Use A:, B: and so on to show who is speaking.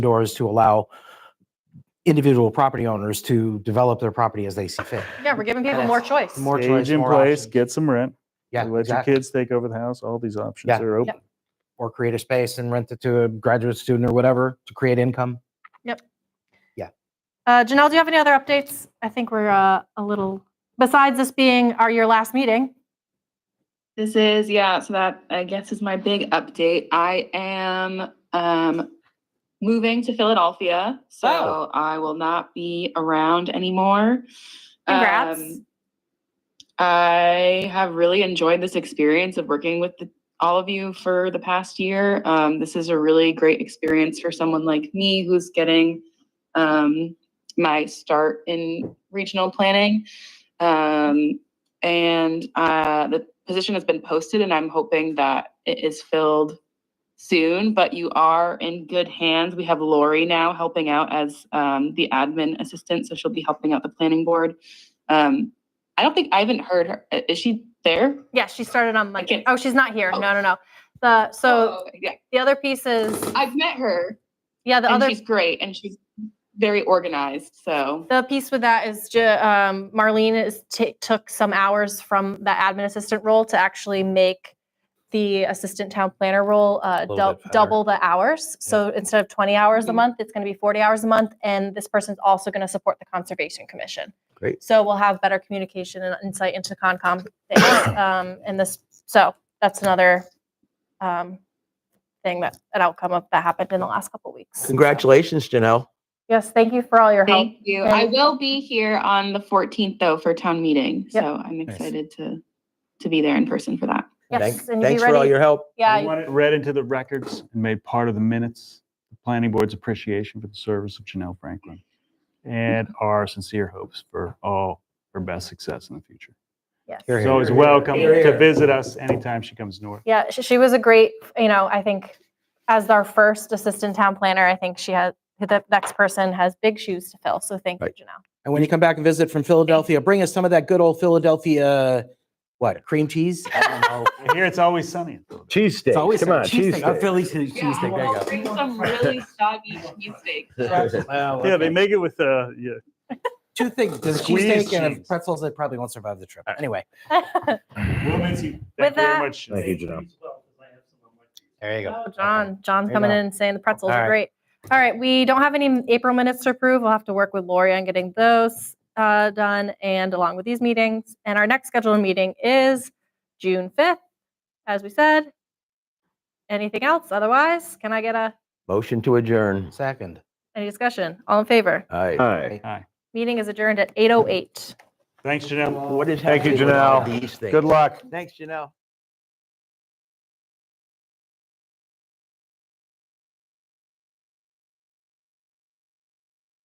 A: doors to allow individual property owners to develop their property as they see fit.
B: Yeah, we're giving people
A: Yes.
B: more choice.
A: More choice,
C: Age in
A: more
C: place,
A: options.
C: get some rent,
A: Yeah,
C: let your
A: exactly.
C: kids take over the house, all these options
A: Yeah.
C: are open.
A: Or create a space and rent it to a graduate student or whatever to create income.
B: Uh, Janelle, do you have any other updates? I think we're uh, a little, besides this being our, your last meeting,
D: This is, yeah, so that I guess is my big update. I am um moving to Philadelphia, so
A: Oh.
D: I will not be around anymore.
B: Congrats.
D: Um, I have really enjoyed this experience of working with the, all of you for the past year. Um, this is a really great experience for someone like me who's getting um, my start in regional planning. Um, and uh, the position has been posted, and I'm hoping that it is filled soon. But you are in good hands. We have Lori now helping out as um, the admin assistant, so she'll be helping out the planning board. Um, I don't think I haven't heard her. i- Is she there?
B: yeah, she started on Monday.
D: can't-
B: Oh, she's not here.
D: Oh.
B: No, no, no. The, so
D: Oh, okay, yeah,
B: the other piece is,
D: I've met her,
B: yeah, the
D: and
B: other,
D: she's great, and she's very organized. So
B: the piece with that is ju- um, Marlene is ta- took some hours from the admin assistant role to actually make the assistant town planner role uh,
A: little
B: dou-
A: bit better.
B: double the hours. So instead of 20 hours a
E: Mm-hmm.
D: Mhm.
B: month, it's going to be 40 hours a month. And this person's also going to support the Conservation Commission.
E: Great.
B: So we'll have better communication and insight into Concom. things, um, and this, so that's another um, thing that an outcome of that happened in the last couple weeks.
E: Congratulations, Janelle.
B: Yes, thank you for all your help.
D: thank you. I
B: Thank-
D: will be here on the 14th though for town meeting.
B: Yep.
D: So I'm excited to to be there in person for that.
B: Yes,
E: Thanks,
B: and you be
E: thanks for all
B: ready.
E: your help.
C: We
B: Yeah,
C: want it read into the records and made part of the minutes, the planning board's appreciation for the service of Janelle Franklin and our sincere hopes for all her best success in the future.
B: yes.
A: Here,
C: She's
A: here.
C: always welcome
E: Here,
C: to
E: here.
C: visit us anytime she comes north.
B: Yeah, she, she was a great, you know, I think as our first assistant town planner, I think she has, the next person has big shoes to fill. So thank you,
E: Right.
B: Janelle.
A: And when you come back and visit from Philadelphia, bring us some of that good old Philadelphia, what, cream cheese? I don't know.
C: And Here, it's always sunny. in Philadelphia.
A: It's
E: Cheesesteak,
A: always
E: come on,
A: cheesesteak. A
E: cheesesteak.
A: Philly cheese- cheesesteak, there you go.
D: bring some really soggy cheesesteak.
A: Well,
C: Yeah, they
A: okay.
C: make it with, uh, yeah.
A: Two things, there's a
C: Squeeze
A: cheesesteak and a
C: cheese.
A: pretzels that probably won't survive the trip. Anyway,
C: Well, Nancy,
B: With
C: Thank you very
B: that-
C: much.
E: Thank you, Janelle.
A: there you go.
B: Oh, John, John's
A: There you
B: coming
A: go.
B: in and saying the pretzels
A: All
B: are
A: right.
B: great. All right, we don't have any April minutes to approve. We'll have to work with Lori on getting those uh, done and along with these meetings. And our next scheduled meeting is June 5th, as we said. Anything else? Otherwise, can I get a,
E: Motion to adjourn.
A: Second.
B: any discussion? All in favor?
E: All right.
F: Hi.
B: Meeting is adjourned at 8:08.
C: Thanks, Janelle.
E: What is
F: Thank you,
E: happening with all
F: Janelle.
E: these
F: Good
E: things?
F: luck.
E: Thanks, Janelle.